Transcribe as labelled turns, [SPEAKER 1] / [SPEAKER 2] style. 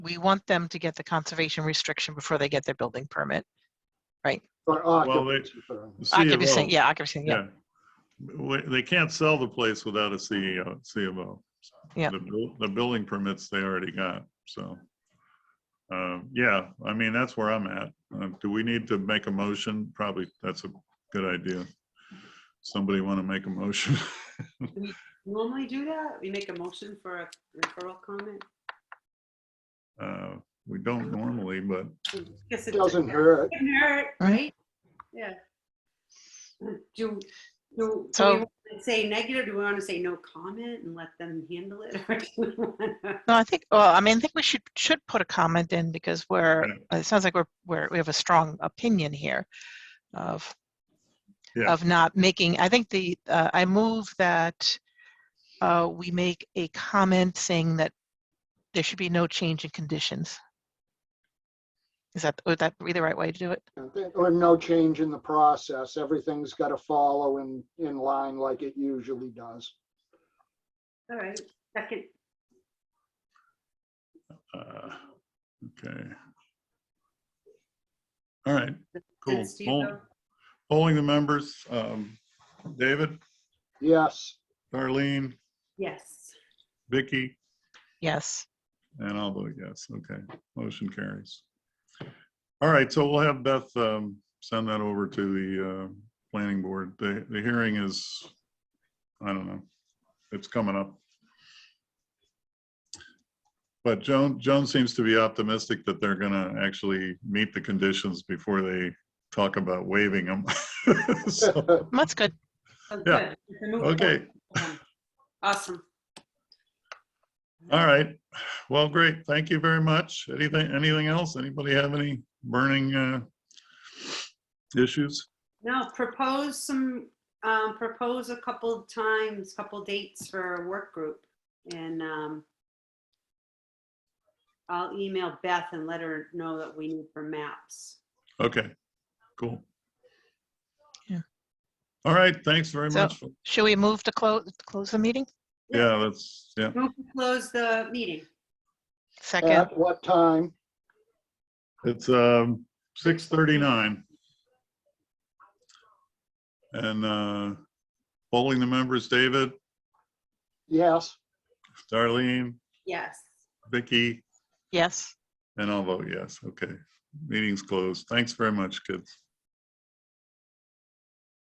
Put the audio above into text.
[SPEAKER 1] we want them to get the conservation restriction before they get their building permit.
[SPEAKER 2] Or
[SPEAKER 3] Well, they-
[SPEAKER 2] occupancy permit.
[SPEAKER 1] Occupancy,
[SPEAKER 3] CMO,
[SPEAKER 1] yeah, occupancy, yeah.
[SPEAKER 3] E Yeah. We- They can't sell the place without a E CEO, CMO.
[SPEAKER 1] Yeah.
[SPEAKER 3] The buil- The building permits they already got, so. um, Yeah, I mean, that's where I'm at. Uh, Do we need to make a motion? Probably, that's a good idea. Somebody want to make a motion?
[SPEAKER 4] Normally do that? We make a motion for a referral comment?
[SPEAKER 3] Uh, We don't normally, but
[SPEAKER 4] Guess
[SPEAKER 2] It Doesn't hurt.
[SPEAKER 4] Doesn't hurt, right? Yeah. Do, do, do
[SPEAKER 1] So-
[SPEAKER 4] we want to say negative? Do we want to say no comment and let them handle it? Or do we want to?
[SPEAKER 1] No, I think, well, I mean, I think we should, should put a comment in because we're,
[SPEAKER 3] Right.
[SPEAKER 1] it sounds like we're, we're, we have a strong opinion here of,
[SPEAKER 3] Yeah.
[SPEAKER 1] of not making, I think the, uh, I move that uh, we make a comment saying that there should be no change in conditions. Is that, would that be the right way to do it?
[SPEAKER 2] And then- Or no change in the process. Everything's got to follow in, in line like it usually does.
[SPEAKER 4] All right, second,
[SPEAKER 3] uh, okay. All right, cool.
[SPEAKER 4] Does Steve
[SPEAKER 3] Poll-
[SPEAKER 4] vote?
[SPEAKER 3] Polling the members, um, David,
[SPEAKER 2] Yes,
[SPEAKER 3] Darlene,
[SPEAKER 4] yes.
[SPEAKER 3] Vicky,
[SPEAKER 1] Yes.
[SPEAKER 3] and I'll vote yes. Okay, motion carries. All right, so we'll have Beth um, send that over to the uh, planning board. The, the hearing is, I don't know, it's coming up. But Joan, Joan seems to be optimistic that they're gonna actually meet the conditions before they talk about waiving them. So,
[SPEAKER 1] That's good.
[SPEAKER 4] Sounds
[SPEAKER 3] Yeah.
[SPEAKER 4] Oh, good. We can move
[SPEAKER 3] Okay,
[SPEAKER 4] forward. Awesome.
[SPEAKER 3] all right. Well, great. Thank you very much. Anything, anything else? Anybody have any burning uh, issues?
[SPEAKER 4] No, propose some, um, propose a couple times, couple dates for a work group and, um, I'll email Beth and let her know that we need for maps.
[SPEAKER 3] Okay, cool.
[SPEAKER 1] Yeah.
[SPEAKER 3] All right, thanks very
[SPEAKER 1] So-
[SPEAKER 3] much. for-
[SPEAKER 1] Should we move to close, close the meeting?
[SPEAKER 3] Yeah, that's, yeah.
[SPEAKER 4] Move to close the meeting.
[SPEAKER 1] Second,
[SPEAKER 2] at what time?
[SPEAKER 3] It's um six thirty-nine. And uh polling the members, David,
[SPEAKER 2] Yes,
[SPEAKER 3] Darlene,
[SPEAKER 4] Yes.
[SPEAKER 3] Vicky,
[SPEAKER 1] yes.
[SPEAKER 3] and I'll vote yes. Okay, meeting's closed. Thanks very much, kids.